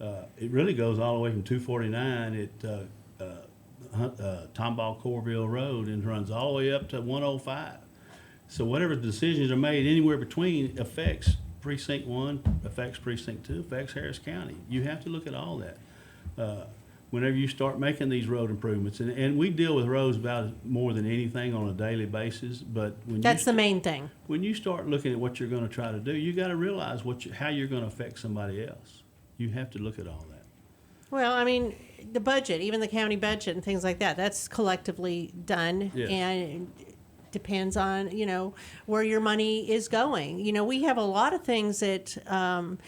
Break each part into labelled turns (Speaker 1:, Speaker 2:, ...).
Speaker 1: Uh, it really goes all the way from two forty-nine at, uh, uh, Hun- uh, Tomball Corville Road and runs all the way up to one oh five. So whatever decisions are made anywhere between affects precinct one, affects precinct two, affects Harris County. You have to look at all that. Uh, Whenever you start making these road improvements, and, and we deal with roads about more than anything on a daily basis, but when you.
Speaker 2: That's the
Speaker 1: st-
Speaker 2: main thing.
Speaker 1: when you start looking at what you're going to try to do, you got to realize what you, how you're going to affect somebody else. You have to look at all that.
Speaker 2: Well, I mean, the budget, even the county budget and things like that, that's collectively done
Speaker 1: Yes.
Speaker 2: and depends on, you know, where your money is going. You know, we have a lot of things that um,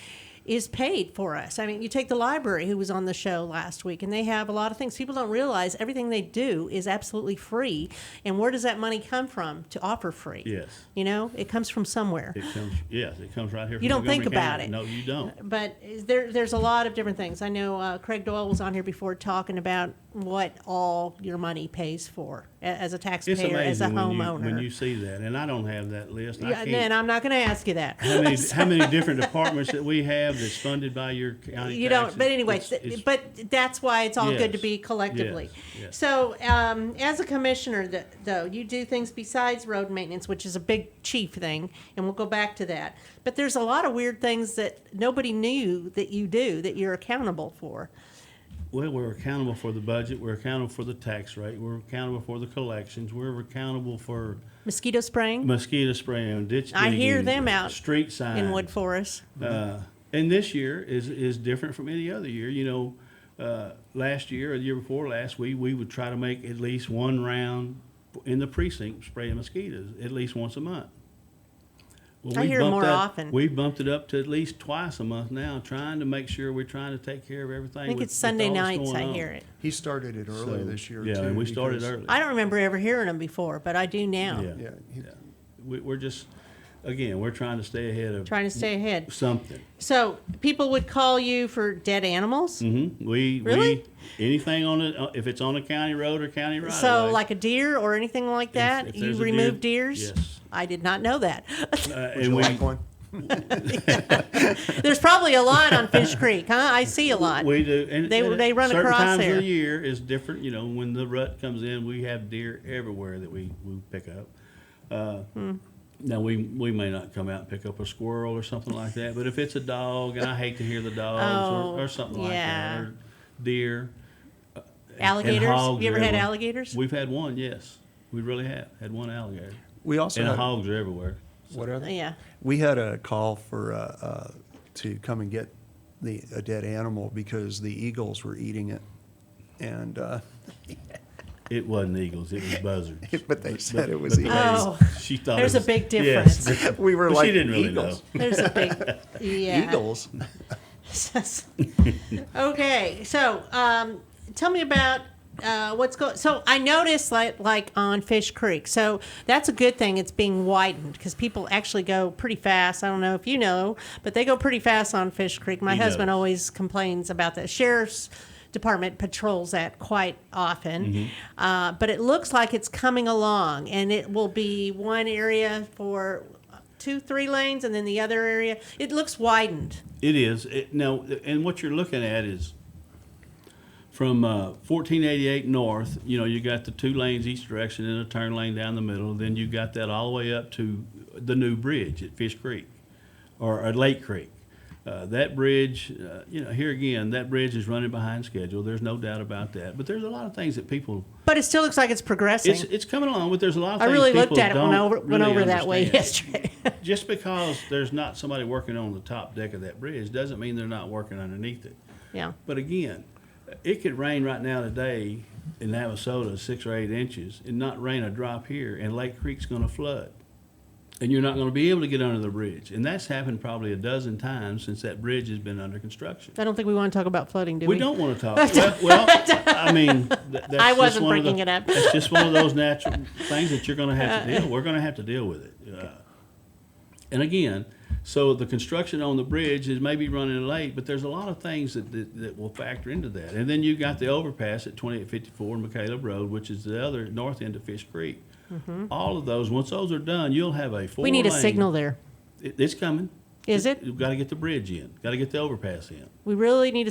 Speaker 2: is paid for us. I mean, you take the library who was on the show last week and they have a lot of things. People don't realize everything they do is absolutely free. And where does that money come from to offer free?
Speaker 1: Yes,
Speaker 2: You know, it comes from somewhere.
Speaker 1: it comes. Yes, it comes right here. From
Speaker 2: You don't think
Speaker 1: Montgomery County.
Speaker 2: about
Speaker 1: No, you don't.
Speaker 2: but is there there's a lot of different things. I know uh, Craig Doyle was on here before talking about what all your money pays for a- as a
Speaker 1: It's
Speaker 2: taxpayer, as a
Speaker 1: amazing when you,
Speaker 2: homeowner.
Speaker 1: when you see that, and I don't have that list. I
Speaker 2: yeah,
Speaker 1: can't,
Speaker 2: then I'm not going to ask you that.
Speaker 1: how many how many different departments that we have that's funded by your county?
Speaker 2: you don't.
Speaker 1: taxes?
Speaker 2: But anyway,
Speaker 1: It's-
Speaker 2: th-
Speaker 1: it's-
Speaker 2: but that's why it's all good to
Speaker 1: Yes,
Speaker 2: be collectively.
Speaker 1: yes, yes.
Speaker 2: So, um, as a commissioner, th- though, you do things besides road maintenance, which is a big chief thing, and we'll go back to that. But there's a lot of weird things that nobody knew that you do that you're accountable for.
Speaker 1: Well, we're accountable for the budget. We're accountable for the tax rate. We're accountable for the collections. We're accountable for
Speaker 2: Mosquito spraying.
Speaker 1: mosquito spraying, ditch
Speaker 2: I hear
Speaker 1: digging,
Speaker 2: them out
Speaker 1: street signs
Speaker 2: in Wood Forest.
Speaker 1: Uh, and this year is is different from any other year. You know, uh, last year or the year before last, we we would try to make at least one round in the precinct spraying mosquitoes at least once a month. Well,
Speaker 2: I
Speaker 1: we
Speaker 2: hear
Speaker 1: bumped
Speaker 2: more
Speaker 1: that-
Speaker 2: often.
Speaker 1: We bumped it up to at least twice a month now, trying to make sure we're trying to take care of everything.
Speaker 2: I think
Speaker 1: with-
Speaker 2: it's
Speaker 1: with
Speaker 2: Sunday
Speaker 1: all that's
Speaker 2: nights
Speaker 1: going
Speaker 2: I
Speaker 1: on.
Speaker 2: hear it.
Speaker 3: He started it early
Speaker 1: So,
Speaker 3: this year.
Speaker 1: Yeah,
Speaker 3: too,
Speaker 1: and we started
Speaker 3: because-
Speaker 1: early.
Speaker 2: I don't remember ever hearing them before, but I do now.
Speaker 1: Yeah,
Speaker 3: Yeah, he-
Speaker 1: yeah. We, we're just, again, we're trying to stay ahead of
Speaker 2: Trying to stay ahead.
Speaker 1: something.
Speaker 2: So people would call you for dead animals.
Speaker 1: Mm-hmm. We
Speaker 2: Really?
Speaker 1: we anything on it uh, if it's on a county road or county right.
Speaker 2: so like a deer or anything like that,
Speaker 1: if
Speaker 2: you
Speaker 1: there's a
Speaker 2: remove
Speaker 1: deer-
Speaker 2: deers.
Speaker 1: yes.
Speaker 2: I did not know that.
Speaker 1: uh,
Speaker 3: Would
Speaker 1: and
Speaker 3: you
Speaker 1: we
Speaker 3: like one?
Speaker 2: There's probably a lot on Fish Creek, huh? I see a lot.
Speaker 1: we do and
Speaker 2: They-
Speaker 1: and
Speaker 2: they
Speaker 1: at
Speaker 2: run
Speaker 1: certain
Speaker 2: across
Speaker 1: times of
Speaker 2: there.
Speaker 1: the year is different. You know when the rut comes in, we have deer everywhere that we we pick up. Uh,
Speaker 2: Hmm.
Speaker 1: Now we we may not come out and pick up a squirrel or something like that, but if it's a dog, and I hate to hear the dogs
Speaker 2: Oh,
Speaker 1: or, or something like
Speaker 2: yeah.
Speaker 1: that, or deer, and
Speaker 2: alligators.
Speaker 1: hogs
Speaker 2: you ever
Speaker 1: are
Speaker 2: had
Speaker 1: everywhere.
Speaker 2: alligators?
Speaker 1: We've had one, yes, we really have had one alligator,
Speaker 3: We also
Speaker 1: and
Speaker 3: had,
Speaker 1: hogs are everywhere.
Speaker 3: what are they?
Speaker 2: yeah.
Speaker 3: We had a call for uh, uh, to come and get the a dead animal because the eagles were eating it, and uh,
Speaker 1: It wasn't eagles. It was buzzards.
Speaker 3: but they said it was
Speaker 1: the
Speaker 3: eagles.
Speaker 1: lady-
Speaker 2: Oh,
Speaker 1: she thought
Speaker 2: there's
Speaker 1: it
Speaker 2: a
Speaker 1: was-
Speaker 2: big
Speaker 1: yes.
Speaker 2: difference.
Speaker 3: we were
Speaker 1: But
Speaker 3: like
Speaker 1: she didn't really
Speaker 3: eagles,
Speaker 2: There's a big yeah.
Speaker 3: eagles.
Speaker 2: okay, so um, tell me about uh, what's going. So I noticed like like on Fish Creek. So that's a good thing. It's being widened because people actually go pretty fast. I don't know if you know, but they go pretty fast on Fish Creek. My
Speaker 1: He
Speaker 2: husband
Speaker 1: knows.
Speaker 2: always complains about that. Sheriff's department patrols that quite often, uh, but it looks like it's coming along, and it will be one area for. Two, three lanes, and then the other area. It looks widened.
Speaker 1: It is. It, now, and what you're looking at is from uh, 1488 north, you know, you got the two lanes each direction and a turn lane down the middle. Then you got that all the way up to the new bridge at Fish Creek or at Lake Creek. Uh, that bridge, uh, you know, here again, that bridge is running behind schedule. There's no doubt about that. But there's a lot of things that people
Speaker 2: But it still looks like it's progressing.
Speaker 1: It's, it's coming along, but there's a lot of
Speaker 2: I
Speaker 1: things
Speaker 2: really
Speaker 1: people
Speaker 2: looked at it
Speaker 1: don't
Speaker 2: went over went
Speaker 1: really
Speaker 2: over that way
Speaker 1: understand.
Speaker 2: yesterday.
Speaker 1: Just because there's not somebody working on the top deck of that bridge doesn't mean they're not working underneath it.
Speaker 2: yeah.
Speaker 1: But again, it could rain right now today in Navasota six or eight inches and not rain a drop here, and Lake Creek's going to flood. And you're not going to be able to get under the bridge. And that's happened probably a dozen times since that bridge has been under construction.
Speaker 2: I don't think we want to talk about flooding, do we?
Speaker 1: We don't want to talk. Well, well I mean, th- that's
Speaker 2: I
Speaker 1: just
Speaker 2: wasn't
Speaker 1: one of the-
Speaker 2: bringing it up.
Speaker 1: That's just one of those natural things that you're going to have to deal. We're going to have to deal with it. Uh, and again, so the construction on the bridge is maybe running late, but there's a lot of things that, that, that will factor into that. And then you got the overpass at 2854 McCaleb Road, which is the other north end of Fish Creek. All of those, once those are done, you'll have a four.
Speaker 2: Mm-hmm. We need a
Speaker 1: lane-
Speaker 2: signal there.
Speaker 1: It, it's coming.
Speaker 2: Is it?
Speaker 1: You've got to get the bridge in. Got to get the overpass in.
Speaker 2: We really need a